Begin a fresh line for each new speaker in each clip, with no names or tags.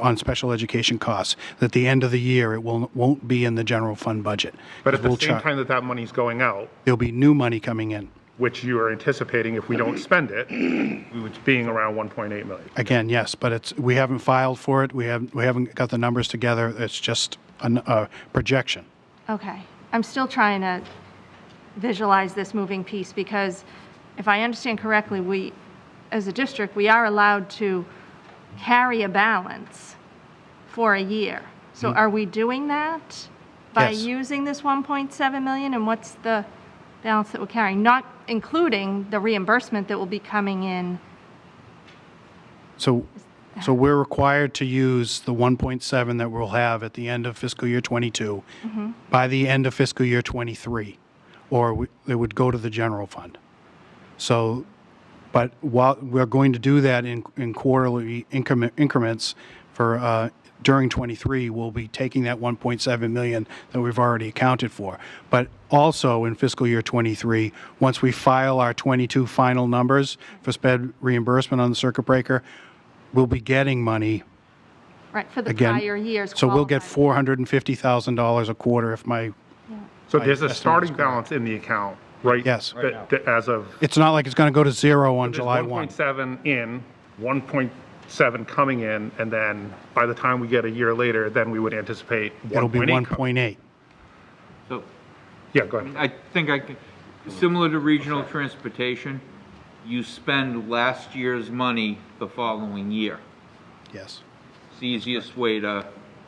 on special education costs, that at the end of the year, it will, won't be in the general fund budget.
But at the
We'll
same
char-
time that that money's going out,
There'll be new money coming in.
which you are anticipating if we don't spend it, it's being around 1.8 million.
Again, yes, but it's, we haven't filed for it, we haven't, we haven't got the numbers together, it's just an- a projection.
Okay, I'm still trying to visualize this moving piece, because if I understand correctly, we, as a district, we are allowed to carry a balance for a year. So are we doing that by
Mm-hmm. Yes.
using this 1.7 million, and what's the balance that we're carrying? Not including the reimbursement that will be coming in,
So, so we're required to use the 1.7 that we'll have at the end of fiscal year '22 by the end of fiscal year '23, or we- it would go to the general fund. So, but while, we're going to do that in in quarterly increment- increments for, uh, during '23, we'll be taking that 1.7 million that we've already accounted for. But also in fiscal year '23, once we file our '22 final numbers for sped reimbursement on the circuit breaker, we'll be getting money
right, for the
again.
prior years
So we'll get
qualified.
$450,000 a quarter if my,
So there's a starting balance in the account, right?
Yes.
that- that As of
it's not like it's going to go to zero on
There's
July 1.
1.7 in, 1.7 coming in, and then by the time we get a year later, then we would anticipate 1.8.
It'll be
co-
1.8.
So
Yeah, go ahead.
I think I, can- similar to regional transportation, you spend last year's money the following year.
Yes.
It's the easiest way to,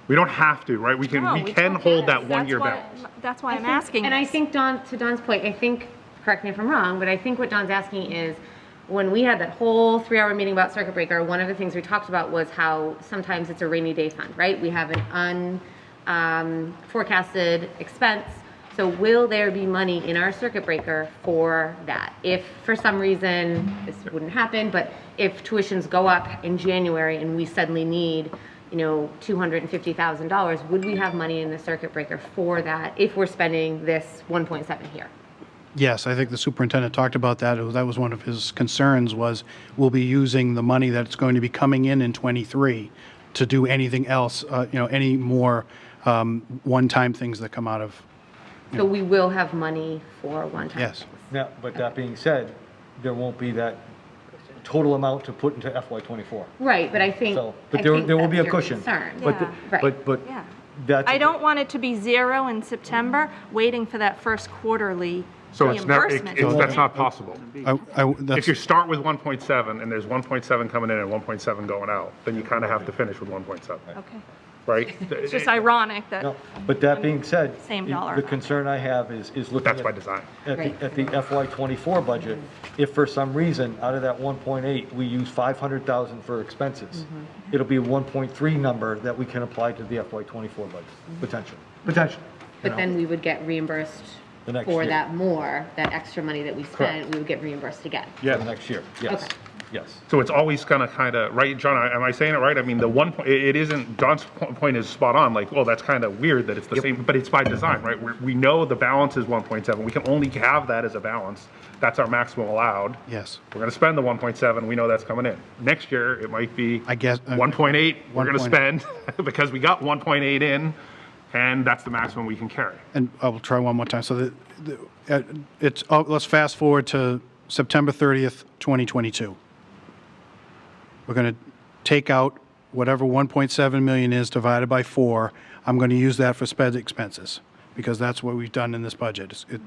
We don't have to, right? We
No,
can, we
we
can
don't.
hold that
That's
one-year
why-
balance.
That's why I'm
think-
asking.
And I
this.
think Don, to Don's point, I think, correct me if I'm wrong, but I think what Don's asking is, when we had that whole three-hour meeting about circuit breaker, one of the things we talked about was how sometimes it's a rainy day fund, right? We have an un, um, forecasted expense. So will there be money in our circuit breaker for that? If for some reason, this wouldn't happen, but if tuitions go up in January and we suddenly need you know, two hundred and fifty thousand dollars, would we have money in the circuit breaker for that if we're spending this one point seven here?
Yes, I think the superintendent talked about that. It was- That was one of his concerns was we'll be using the money that's going to be coming in in '23 to do anything else, uh, you know, any more um, one-time things that come out of,
So we will have money for one-time.
yes.
Now, but that being said, there won't be that total amount to put into FY '24.
Right, but I think.
So, but
I
there,
think
there will
that's
be a
your
cushion.
concern.
But, the-
Yeah.
Right.
but, but
Yeah.
that's.
I don't want it to be zero in September, waiting for that first quarterly
So it's not, it-
reimbursement.
it's- that's not possible.
I- I-
If you
that's-
start with 1.7 and there's 1.7 coming in and 1.7 going out, then you kind of have to finish with 1.7,
Okay.
right?
It's just ironic that,
No, but that being said.
Same
the-
dollar
The
amount.
concern I have is, is looking.
That's
at-
by design.
At
Right.
the, at the FY '24 budget, if for some reason, out of that 1.8, we use 500,000 for expenses,
Mm-hmm.
it'll be a 1.3 number that we can apply to the FY '24 budget,
Mm-hmm.
potentially, potentially.
But then we would get reimbursed
The next
for
year.
that more, that extra money that we spent, we would get reimbursed again.
Yeah, next year, yes,
Okay.
yes.
So it's always gonna kind of, right, John, I- am I saying it right? I mean, the one, point it it isn't, John's po- point is spot on, like, well, that's kind of weird that it's the same, but it's by design, right? We're- We know the balance is 1.7, we can only have that as a balance, that's our maximum allowed.
Yes.
We're gonna spend the 1.7, we know that's coming in. Next year, it might be.
I guess- uh, I-
1.8, we're gonna
1.8.
spend, because we got 1.8 in, and that's the maximum we can carry.
And I will try one more time. So the, the, uh, it's, oh, let's fast forward to September 30th, 2022. We're going to take out whatever 1.7 million is divided by four. I'm going to use that for sped expenses because that's what we've done in this budget. It's- it-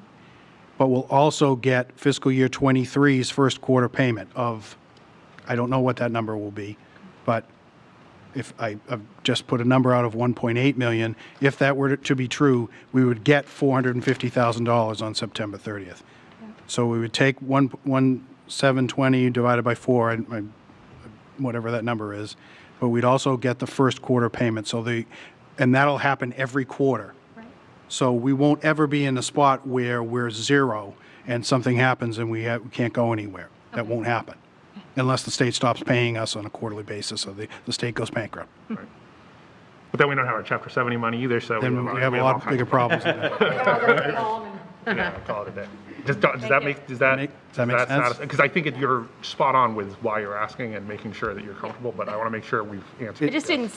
But we'll also get fiscal year '23's first quarter payment of, I don't know what that number will be, but if I, I've just put a number out of 1.8 million, if that were to be true, we would get $450,000 on September 30th. So we would take 1, 1,720 divided by 4, and my- whatever that number is, but we'd also get the first quarter payment, so the, and that'll happen every quarter. So we won't ever be in a spot where we're zero and something happens and we ha- we can't go anywhere. That won't happen unless the state stops paying us on a quarterly basis or the, the state goes bankrupt.
But then we don't have our Chapter 70 money either, so.
Then we have a lot bigger problems. than that.
Yeah, call it a day. Does, does that make, does that?
Make- does that make sense?
Because I think it- you're spot on with why you're asking and making sure that you're comfortable, but I want to make sure we've answered.
it just didn't